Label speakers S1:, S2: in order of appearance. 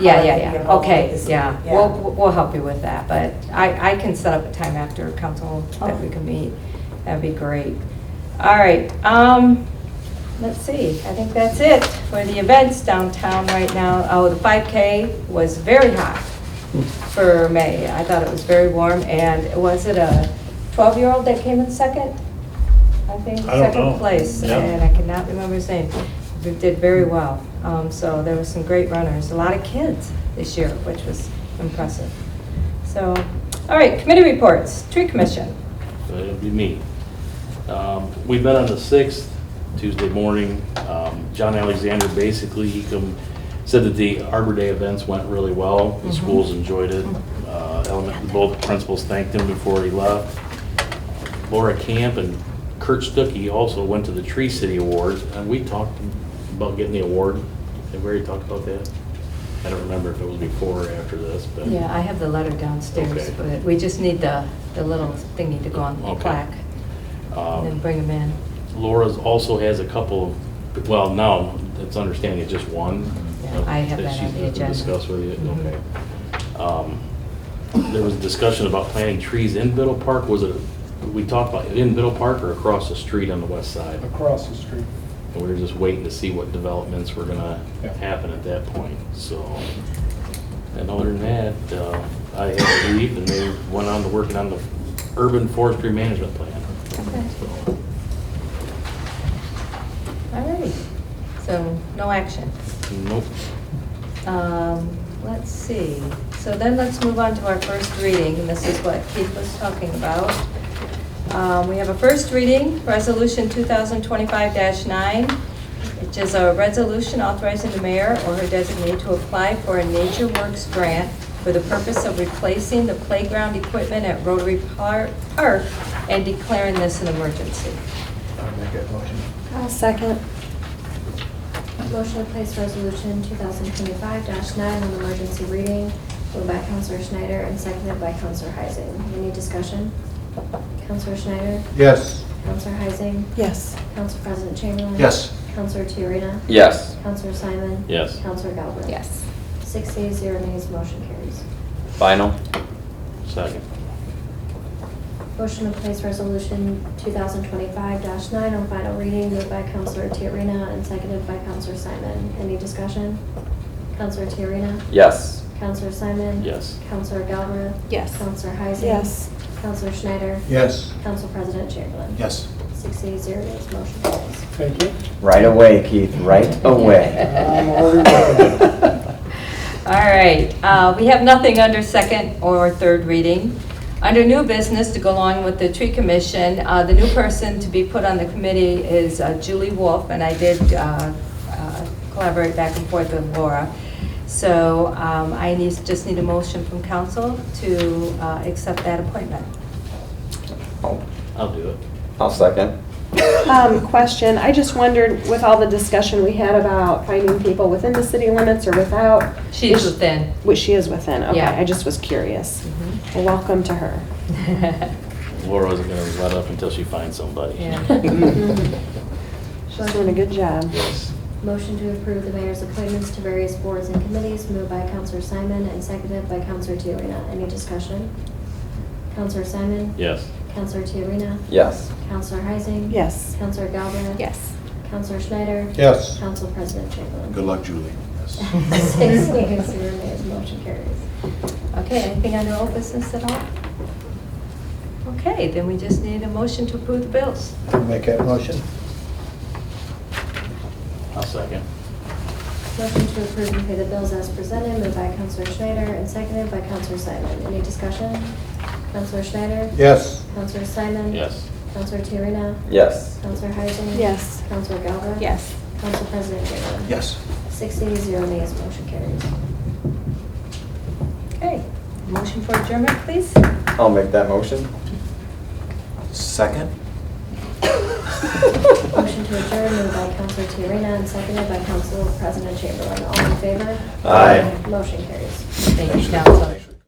S1: Yeah,
S2: how to
S1: yeah,
S2: be
S1: yeah,
S2: involved with
S1: okay,
S2: this.
S1: yeah, we'll, we'll help you with that, but I, I can set up a time after council that we can meet, that'd be great. All right, um, let's see, I think that's it for the events downtown right now. Oh, the five K was very hot for May, I thought it was very warm, and was it a twelve-year-old that came in second? I think,
S3: I don't know.
S1: second place,
S3: Yeah.
S1: and I cannot remember his name. We did very well. Um, So there were some great runners, a lot of kids this year, which was impressive. So, all right, committee reports, tree commission.
S4: So Uh, It'll be me. Um, We met on the 6th, Tuesday morning. Um, John Alexander, basically, he come, said that the Arbor Day events went really well. The
S1: Mhm.
S4: schools enjoyed it. Uh, element- Both principals thanked him before he left. Laura Camp and Kurt Stuckey also went to the Tree City Awards, and we talked about getting the award. Have we already talked about that? I don't remember if it was before or after this, but.
S1: Yeah, I have the letter downstairs,
S4: Okay.
S1: but we just need the, the little thingy to go on the
S4: Okay.
S1: plaque and then
S4: um,
S1: bring them in.
S4: Laura's also has a couple of, well, no, it's understanding it's just one.
S1: Yeah, I have that on
S4: she's
S1: the
S4: gonna
S1: agenda.
S4: Discuss with you,
S1: Mhm.
S4: okay. Um, There was discussion about planting trees in Biddle Park, was it, we talked about it in Biddle Park or across the street on the west side?
S3: Across the street.
S4: And we were just waiting to see what developments were gonna
S3: Yeah.
S4: happen at that point, so. And other than that, uh, I had to leave and they went on to working on the urban forestry management plan.
S1: Okay.
S4: So,
S1: All righty, so no action.
S4: Nope.
S1: Um, Let's see, so then let's move on to our first reading, and this is what Keith was talking about. Um, We have a first reading, Resolution 2025-9, which is a resolution authorizing the mayor or her designee to apply for a Nature Works grant for the purpose of replacing the playground equipment at Rotary Par- Park and declaring this an emergency.
S3: I'll make that motion.
S5: I'll second. Motion to place resolution 2025-9 on emergency reading, moved by Counselor Schneider and seconded by Counselor Heising. Any discussion? Counselor Schneider?
S3: Yes.
S5: Counselor Heising?
S6: Yes.
S5: Counsel President Chamberlain?
S3: Yes.
S5: Counselor Tiarena?
S7: Yes.
S5: Counselor Simon?
S4: Yes.
S5: Counselor Galbraith? Six yeas, zero nays, motion carries.
S7: Final?
S4: Second.
S5: Motion to place resolution 2025-9 on final reading, moved by Counselor Tiarena and seconded by Counselor Simon. Any discussion? Counselor Tiarena?
S7: Yes.
S5: Counselor Simon?
S4: Yes.
S5: Counselor Galbraith?
S6: Yes.
S5: Counselor Heising?
S6: Yes.
S5: Counselor Schneider?
S3: Yes.
S5: Counsel President Chamberlain?
S3: Yes.
S5: Six yeas, zero nays, motion carries.
S3: Thank you.
S7: Right away, Keith, right away.
S3: I'm already-
S1: All right, uh, we have nothing under second or third reading. Under new business to go along with the tree commission, uh, the new person to be put on the committee is uh, Julie Wolf, and I did uh, uh, collaborate back and forth with Laura. So um, I need, just need a motion from council to uh, accept that appointment.
S4: I'll do it.
S7: I'll second.
S6: Um, question, I just wondered with all the discussion we had about finding people within the city limits or without.
S1: She is within.
S6: Which she is within, okay,
S1: Yeah. Mm-hmm.
S6: I just was curious. Well, Welcome to her.
S4: Laura isn't gonna let up until she finds somebody.
S1: Yeah.
S6: She's doing a good job.
S4: Yes.
S5: Motion to approve the mayor's appointments to various boards and committees, moved by Counselor Simon and seconded by Counselor Tiarena. Any discussion? Counselor Simon?
S4: Yes.
S5: Counselor Tiarena?
S7: Yes.
S5: Counselor Heising?
S6: Yes.
S5: Counselor Galbraith?
S6: Yes.
S5: Counselor Schneider?
S3: Yes.
S5: Counsel President Chamberlain?
S3: Good luck, Julie. Yes.
S5: Six yeas, zero nays, motion carries.
S1: Okay, anything under old business at all? Okay, then we just need a motion to approve the bills.
S3: I'll Make that motion.
S4: I'll second.
S5: Motion to approve and pay the bills as presented, moved by Counselor Schneider and seconded by Counselor Simon. Any discussion? Counselor Schneider?
S3: Yes.
S5: Counselor Simon?
S4: Yes.
S5: Counselor Tiarena?
S7: Yes.
S5: Counselor Heising?
S6: Yes.
S5: Counselor Galbraith?
S6: Yes.
S5: Counsel President Chamberlain?
S3: Yes.
S5: Six yeas, zero nays, motion carries.
S1: Okay, motion for adjournment, please?
S7: I'll make that motion.
S3: Second?
S5: Motion to adjourn, moved by Counselor Tiarena and seconded by Counsel President Chamberlain. All in favor?
S7: Aye.
S5: Motion carries.
S1: Thank you, council.